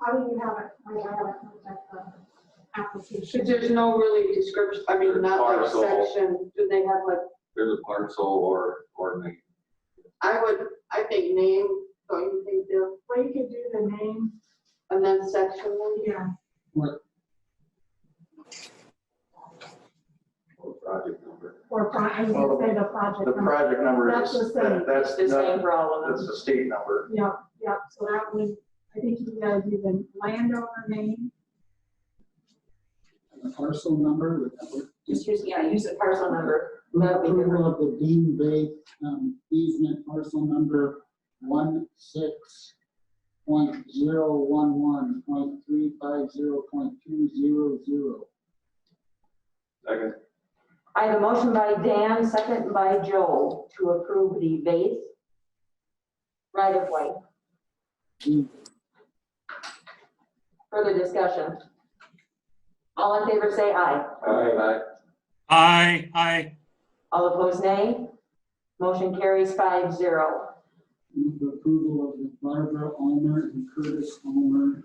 How do you have it, I mean, I haven't looked at the application. Because there's no really description, I mean, not like Parcel. section, do they have like, There's a parcel or, or name. I would, I think name, don't you think, Bill? Well, you could do the name, And then section, maybe? yeah, or project number. or pro, I was gonna say the project. The number. project number That's the is, same. that- that's, the same not- for all of that's them. the state number. Yeah, yeah, so that would, I think you gotta do the landowner name, And the parcel number, would that work? Just use, yeah, use the parcel number. That'd be good. Approval of the Dean Bay um, easement parcel number one six point zero one one point three five zero point two zero zero. Second, I have a motion by Dan, second by Joel, to approve the base right of way. Further discussion? All in favor, say aye. aye, Aye, aye, All opposed, nay. Motion carries five zero. Move the approval of the Barbara Almer and Curtis Almer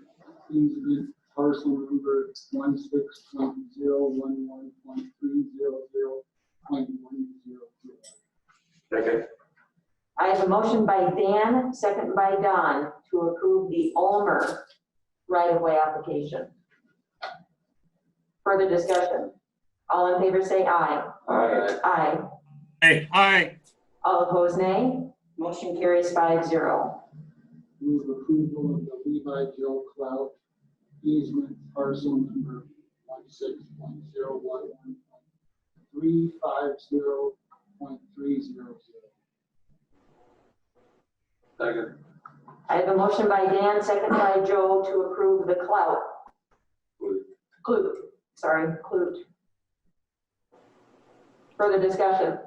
easement parcel number one six point zero one one point three zero zero point one zero zero. Second. I have a motion by Dan, second by Don, to approve the Ulmer right of way application. Further discussion? All in favor, say aye. aye, Aye. aye, aye, All opposed, nay. Motion carries five zero. Move approval of the Levi Joe Clout easement parcel number one six point zero one one point three five zero point three zero zero. second, I have a motion by Dan, second by Joe, to approve the clout. Clute. Clute, sorry, clute. Further discussion?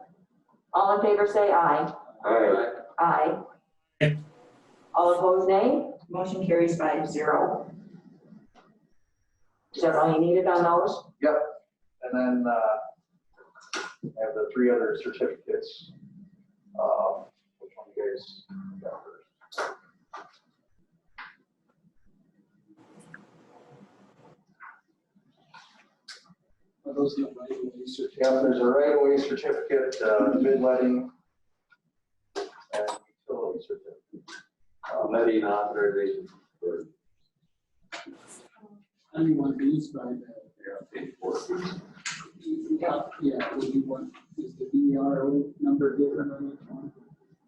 All in favor, say aye. aye, Aye. Aye. All opposed, nay. Motion carries five zero. Is that all you needed on those? And then, uh, I have the three other certificates. Um, Which one you guys got first? Are those the right of way certificates? Yeah, there's a right of way certificate, uh, bid letting. And utility certificate. Uh, letting authorization for, Anyone bees by that? yeah, page four. Yeah, Yeah, would you want, is the B R O number different on each one?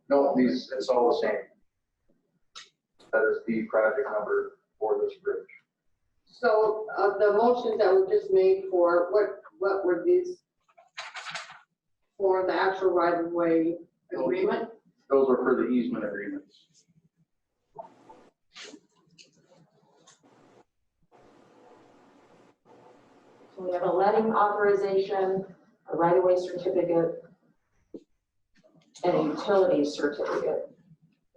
No, these, it's all the same. That is the project number for this bridge. So, uh, the motions that were just made for, what, what were these? For the actual right of way agreement? Those are for the easement agreements. So we have a letting authorization, a right-of-way certificate, and a utility certificate.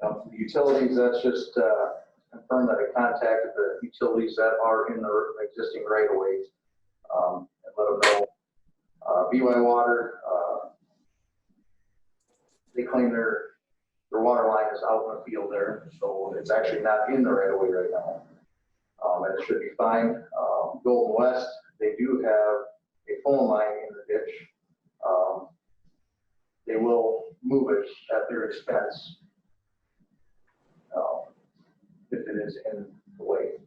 Now, for the Um, utilities, that's just uh, confirmed that I contacted the utilities that are in the existing right of ways. um, And let them know, Uh, BY Water, uh, they claim their, their water line is out in the field there, so it's actually not in the right of way right now. Um, And it should be fine. Um, Golden West, they do have a phone line in the ditch. Um, They will move it at their expense um, if it is in the way.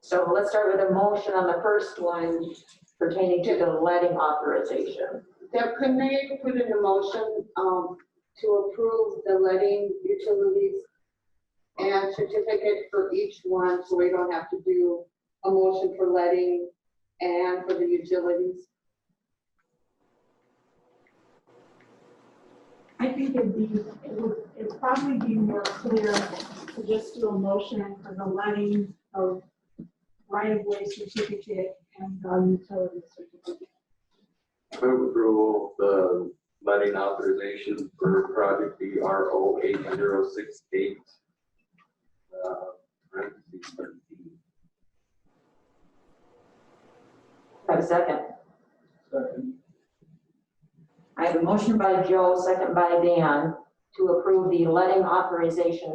So let's start with a motion on the first one pertaining to the letting authorization. Deb, couldn't they put in a motion, um, to approve the letting utilities and certificate for each one, so we don't have to do a motion for letting and for the utilities? I think it'd be, it would, it'd probably be more clear to just do a motion for the letting of right-of-way certificate and the utility certificate. Move approval, of the letting authorization for project B R O eight zero six eight. Uh, parentheses thirteen. Have a second. Second. I have a motion by Joe, second by Dan, to approve the letting authorization